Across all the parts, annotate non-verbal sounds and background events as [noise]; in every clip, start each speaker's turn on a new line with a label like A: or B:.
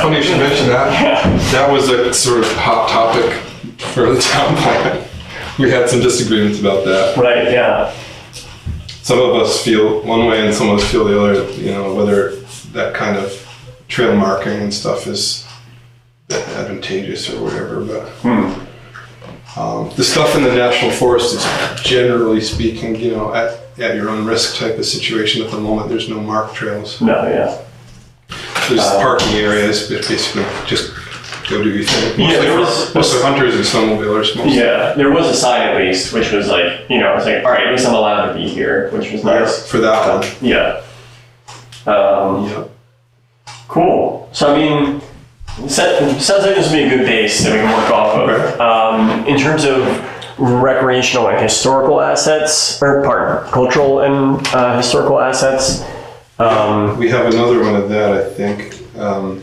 A: funny you should mention that. That was a sort of hot topic for the town plan. We had some disagreements about that.
B: Right, yeah.
A: Some of us feel one way and some of us feel the other, you know, whether that kind of trail marking and stuff is advantageous or whatever, but. Um, the stuff in the national forest is generally speaking, you know, at, at your own risk type of situation at the moment. There's no marked trails.
B: No, yeah.
A: There's parking areas, but basically just go do your thing.
B: Yeah,
A: Mostly,
B: there
A: for-
B: was-
A: mostly hunters and snowmobilers mostly.
B: Yeah, there was a sign at least, which was like, you know, it's like, all right, at least I'm allowed to be here, which was nice.
A: For that one.
B: Yeah. Um,
A: Yeah.
B: cool. So, I mean, set, sounds like this would be a good base that we can work off of.
A: Right.
B: Um, in terms of recreational and historical assets, or pardon, cultural and uh, historical assets, um,
A: We have another one of that, I think. Um,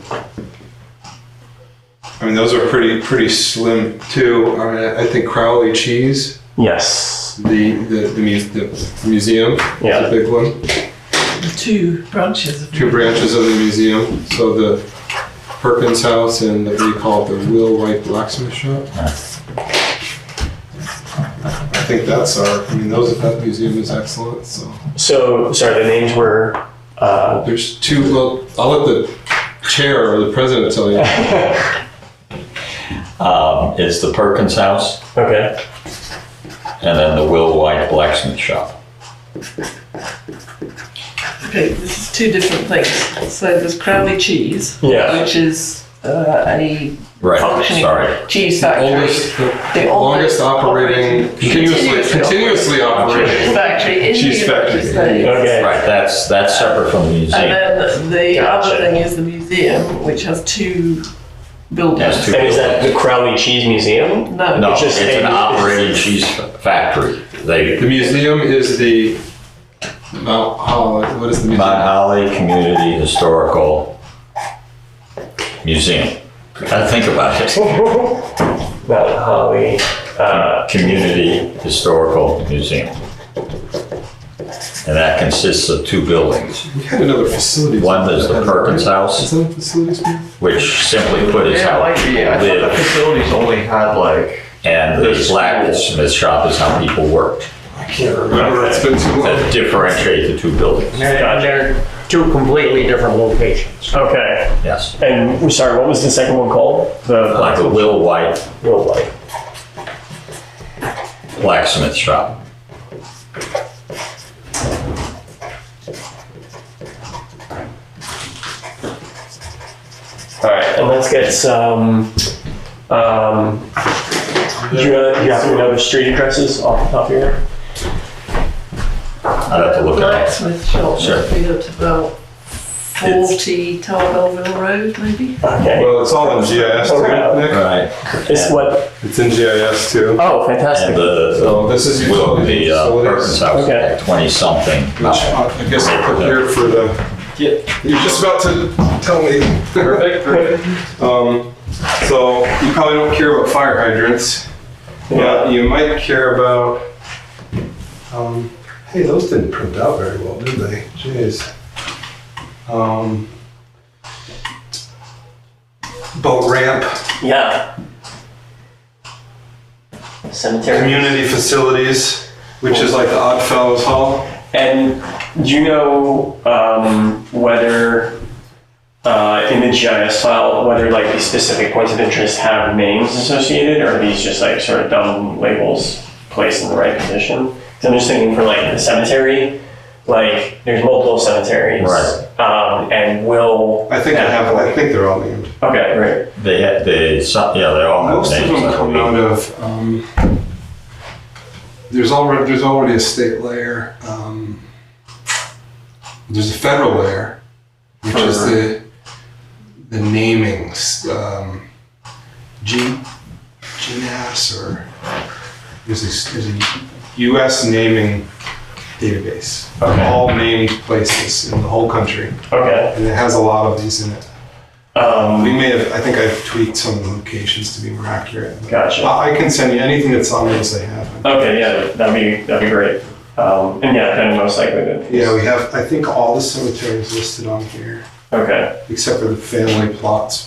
A: I mean, those are pretty pretty slim too. I mean, I think Crowley Cheese,
B: yes.
A: the the the, mu- the museum,
B: Yeah.
A: is a big one.
C: two branches of
A: two branches of the museum. So the Perkins House and the, what do you call it, the Will White Blacksmith Shop. I think that's our. I mean, those that museum is excellent. So
B: So, sorry, the names were. Uh,
A: there's two. Well, I'll let the chair or the president tell you.
D: [laughs] Um, It's the Perkins House
B: okay.
D: and then the Will White Blacksmith Shop.
C: Okay, this is two different things. So there's Crowley Cheese,
B: Yeah.
C: which is uh, a
D: Right,
E: Oh,
C: functioning
D: sorry.
C: cheese factory.
A: Oldest, the
C: The
A: longest
C: oldest
A: operating, continuously, continuously
C: Cheese
A: operating.
C: factory in
A: Cheese
C: the
A: factory.
C: United States.
B: Okay.
D: Right, that's, that's separate from the
C: And
E: Uh,
C: then
D: museum.
C: the
B: Gotcha.
C: other thing is the museum, which has two buildings.
D: That's two
B: And is that the Crowley Cheese Museum?
C: No,
D: No,
B: It's
D: it's
B: just
D: an
B: a-
D: operating cheese factory.
A: The
D: They,
A: museum is the Mount Holly. What is the museum?
D: Mount Holly Community Historical Museum. Gotta think about
B: [laughs]
D: it.
B: Mount Holly. Uh,
D: Community Historical Museum. And that consists of two buildings.
A: We had another facilities.
D: One is the Perkins
A: Is
D: House,
A: that a facilities? man?
D: which simply put is
E: Yeah,
D: how
E: like,
D: people
E: yeah, I thought the
D: live.
E: facilities only had like,
D: And the
E: There's-
D: blacksmith shop is how people worked.
A: I can't remember. It's been too long.
D: that differentiate the two buildings.
B: Gotcha.
F: And they're two completely different locations.
B: okay.
D: Yes.
B: And we're sorry, what was the second one called? The
D: Like a Will White
B: real life.
D: blacksmith shop.
B: All right, and let's get some. Um, do you, uh, you happen to know the street addresses off the top of your head?
D: I'd have to look at it.
C: Blacksmith shop
D: Sure.
C: must be at about 40 Tarbellville Road, maybe?
B: Okay.
A: Well, it's all in GIS too,
D: All
A: Nick.
D: right.
B: It's what?
A: It's in GIS too.
B: Oh, fantastic.
D: And the,
A: So this Oh, is
D: the Will,
A: utility
D: the uh,
A: facilities, which
D: Perkins House,
B: Okay.
D: twenty-something.
A: uh, I guess I put here for the, you're just about to tell me. [laughs] Um, so you probably don't care about fire hydrants, but you might care about, um, hey, those didn't print out very well, did they? Jeez. Um, boat ramp,
B: Yeah. Cemetery.
A: community facilities, which is like the Odd Fellows Hall.
B: And do you know um, whether uh, in the GIS file whether like these specific points of interest have names associated, or are these just like sort of dumb labels placed in the right position? 'Cause I'm just thinking for like the cemetery, like there's multiple cemeteries,
D: Right.
B: Um, and will
A: I think I have. I think they're all named.
B: okay, right,
D: They had, they, some, yeah, they all have
A: Most of
D: names.
A: them
D: I
A: come
D: believe.
A: out of. Um, there's already there's already a state layer. Um, there's a federal layer, which is
B: For-
A: the the namings. Um, G, GNAS or there's a, there's a U.S. naming database of
B: Okay.
A: all named places in the whole country,
B: okay.
A: and it has a lot of these in it.
B: Um,
A: We may have, I think I've tweaked some of the locations to be more accurate.
B: Gotcha.
A: I I can send you anything that's on those they have.
B: okay, yeah, that'd be that'd be great. Um, and yeah, then most likely that these-
A: Yeah, we have, I think all the cemeteries listed on here,
B: okay.
A: except for the family plots